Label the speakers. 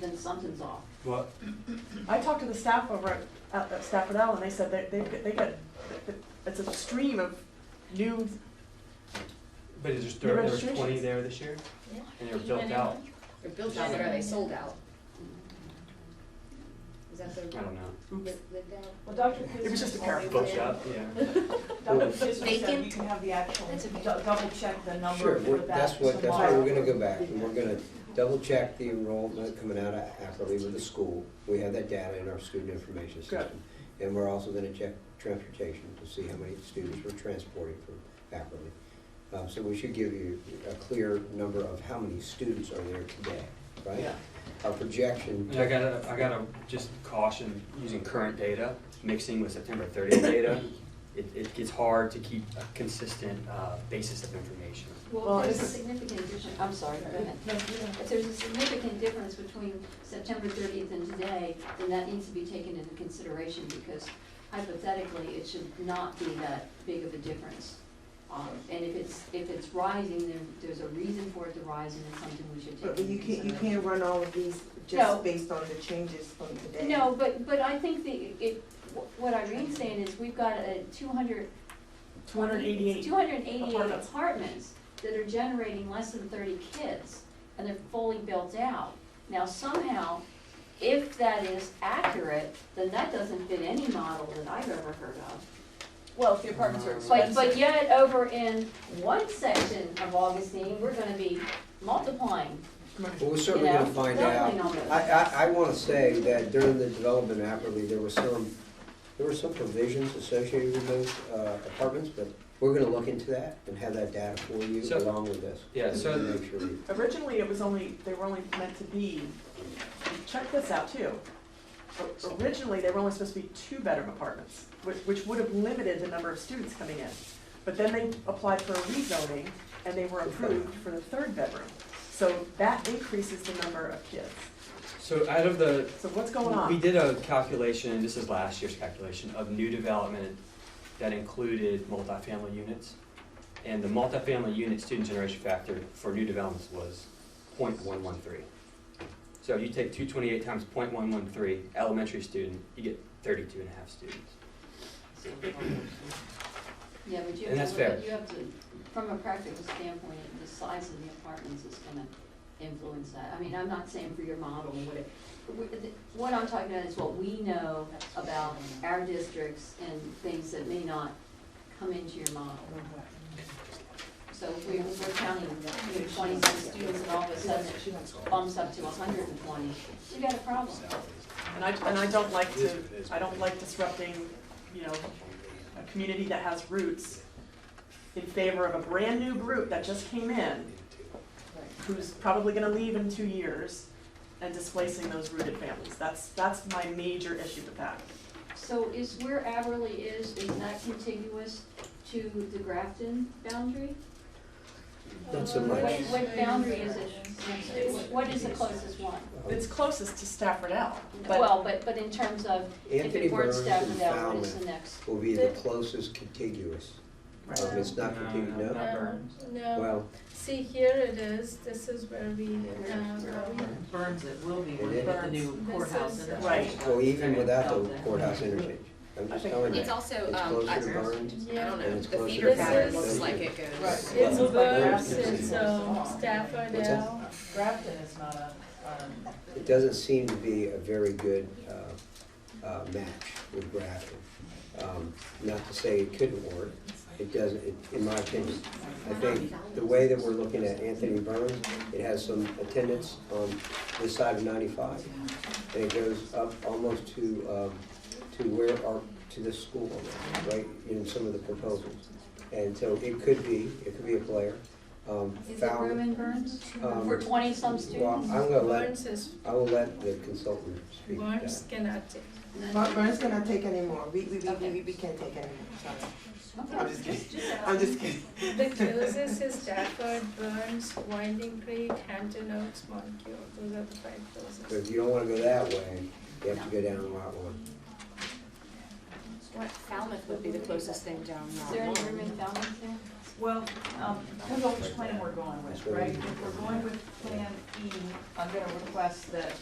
Speaker 1: then something's off.
Speaker 2: Well,
Speaker 3: I talked to the staff over at- at at Stafford L, and they said that they, they get, it's a stream of new,
Speaker 2: but is there, still- there was twenty
Speaker 3: registrations.
Speaker 2: there this year?
Speaker 4: Yeah.
Speaker 2: And they're built out,
Speaker 5: They're built out, or are they sold out? Is that the?
Speaker 2: I don't know.
Speaker 5: Lived lived out?
Speaker 6: Well, Dr.
Speaker 3: It was just a
Speaker 6: Kizner
Speaker 3: pair of
Speaker 6: always
Speaker 2: Built
Speaker 6: said-
Speaker 2: out, yeah.
Speaker 6: Dr. Kizner said you
Speaker 4: Vacant.
Speaker 6: can have the actual,
Speaker 4: That's a
Speaker 6: dou-
Speaker 4: vacant.
Speaker 6: double check the
Speaker 7: Sure,
Speaker 6: number for
Speaker 7: we're-
Speaker 6: that
Speaker 7: that's what, that's
Speaker 6: tomorrow.
Speaker 7: where we're gonna go back, and we're gonna double check the enrollment coming out of Ackley with the school. We have that data in our student information system. And we're also gonna check transportation to see how many students we're transporting from Ackley. Um, so we should give you a clear number of how many students are there today, right?
Speaker 1: Yeah.
Speaker 7: Our projection,
Speaker 2: And I gotta, I gotta just caution using current data, mixing with September thirtieth data. It, it gets hard to keep a consistent, uh, basis of information.
Speaker 1: Well,
Speaker 3: Well,
Speaker 1: if there's a
Speaker 3: it's-
Speaker 1: significant difference, I'm sorry, go ahead.
Speaker 3: No, you know.
Speaker 1: If there's a significant difference between September thirtieth and today, then that needs to be taken into consideration because hypothetically, it should not be that big of a difference. Um, and if it's, if it's rising, then there's a reason for it to rise and it's something we should take
Speaker 8: But
Speaker 1: into
Speaker 8: you can't, you
Speaker 1: consideration.
Speaker 8: can't run all of these
Speaker 1: No.
Speaker 8: just based on the changes from today.
Speaker 1: No, but, but I think the, it, wh- what Irene's saying is we've got a two hundred
Speaker 3: 288.
Speaker 1: 288
Speaker 3: apartments.
Speaker 1: apartments that are generating less than thirty kids, and they're fully built out. Now somehow, if that is accurate, then that doesn't fit any model that I've ever heard of.
Speaker 5: Well, if the apartments are
Speaker 1: But,
Speaker 5: expensive.
Speaker 1: but yet, over in one section of Augustine, we're gonna be multiplying,
Speaker 7: well,
Speaker 1: you
Speaker 7: we're certainly
Speaker 1: know,
Speaker 7: gonna find out.
Speaker 1: doubling almost.
Speaker 7: I, I, I wanna say that during the development of Apperly, there was some, there were some provisions associated with those uh, apartments, but we're gonna look into that and have that data for you
Speaker 2: So-
Speaker 7: along with this.
Speaker 2: Yeah, so-
Speaker 7: To Make sure we-
Speaker 3: Originally, it was only, they were only meant to be, check this out too. O- Originally, they were only supposed to be two-bedroom apartments, which, which would have limited the number of students coming in. But then they applied for a rezoning, and they were approved for the third bedroom. So that increases the number of kids.
Speaker 2: So out of the,
Speaker 3: So what's going on?
Speaker 2: We did a calculation, this is last year's calculation, of new development that included multifamily units. And the multifamily unit student generation factor for new developments was 0.113. So you take two twenty-eight times 0.113 elementary student, you get 32 and a half students.
Speaker 1: Yeah, but you
Speaker 2: And
Speaker 1: have
Speaker 2: that's
Speaker 1: to look
Speaker 2: fair.
Speaker 1: at, you have to, from a practical standpoint, the size of the apartments is gonna influence that. I mean, I'm not saying for your model, what it, we- the- what I'm talking about is what we know about our districts and things that may not come into your model. So if we were counting, you know, twenty-six students and all of a sudden it bumps up to hundred and twenty, you got a problem.
Speaker 3: And I, and I don't like to, I don't like disrupting, you know, a community that has roots in favor of a brand-new group that just came in, who's probably gonna leave in two years, and displacing those rooted families. That's, that's my major issue with that.
Speaker 1: So is where Aberley is, is that contiguous to the Grafton boundary?
Speaker 7: Not so
Speaker 1: What,
Speaker 7: much.
Speaker 1: what boundary is it? What is the closest one?
Speaker 7: uh,
Speaker 3: It's closest to Stafford L, but
Speaker 1: Well, but, but in terms of, if
Speaker 7: Anthony
Speaker 1: it weren't
Speaker 7: Burns and
Speaker 1: Stafford L, what is the
Speaker 7: Falmouth
Speaker 1: next?
Speaker 7: will be the closest contiguous. Um, It's not contiguous, no?
Speaker 2: Not Burns.
Speaker 4: Um, No,
Speaker 7: Well,
Speaker 4: see, here it is, this is where we, uh,
Speaker 9: Burns it will be
Speaker 7: It
Speaker 9: when we put the
Speaker 7: is.
Speaker 9: new courthouse in.
Speaker 3: Right.
Speaker 7: well, even without the courthouse interchange, I'm just telling you.
Speaker 5: It's also,
Speaker 7: It's
Speaker 5: um,
Speaker 7: closer
Speaker 5: I, I
Speaker 7: to Burns.
Speaker 4: yeah.
Speaker 5: don't
Speaker 7: And
Speaker 5: know,
Speaker 7: it's
Speaker 5: the
Speaker 7: closer
Speaker 5: feeder
Speaker 4: to
Speaker 5: pattern
Speaker 4: Burns.
Speaker 5: looks like it goes.
Speaker 6: Right.
Speaker 4: It's
Speaker 7: Well,
Speaker 4: Burns,
Speaker 7: Grafton.
Speaker 4: it's um, Stafford
Speaker 7: What's that?
Speaker 4: L.
Speaker 6: Grafton is not a, um,
Speaker 7: It doesn't seem to be a very good uh, uh, match with Grafton. Um, Not to say it couldn't work, it doesn't, it- in my opinion. I think the way that we're looking at Anthony Burns, it has some attendance on this side of 95, and it goes up almost to, um, to where our, to this school, right, in some of the proposals. And so it could be, it could be a player. Um,
Speaker 1: Is it
Speaker 7: Fallon-
Speaker 1: room in Burns?
Speaker 7: um,
Speaker 1: For twenty-some
Speaker 7: Well,
Speaker 1: students?
Speaker 7: I'm gonna let
Speaker 4: Burns is,
Speaker 7: I will let the consultant speak. to that.
Speaker 4: Burns cannot take.
Speaker 8: Bur- Burns cannot take anymore, we, we, we,
Speaker 1: Okay.
Speaker 8: we, we can't take anymore, sorry.
Speaker 1: Okay.
Speaker 8: I'm just kidding, I'm just kidding.
Speaker 4: The closest is Stafford, Burns, Winding Creek, Hampton Oaks, Monqueal, those are the five
Speaker 7: So
Speaker 4: closest.
Speaker 7: if you don't wanna go that way, you have to go down Route One.
Speaker 5: What, Falmouth would be the closest thing down
Speaker 1: Is
Speaker 5: Route
Speaker 1: there any
Speaker 5: one.
Speaker 1: room in Falmouth there?
Speaker 6: well, um, depends on which plan we're going with, right? If we're going with Plan E, I'm gonna request that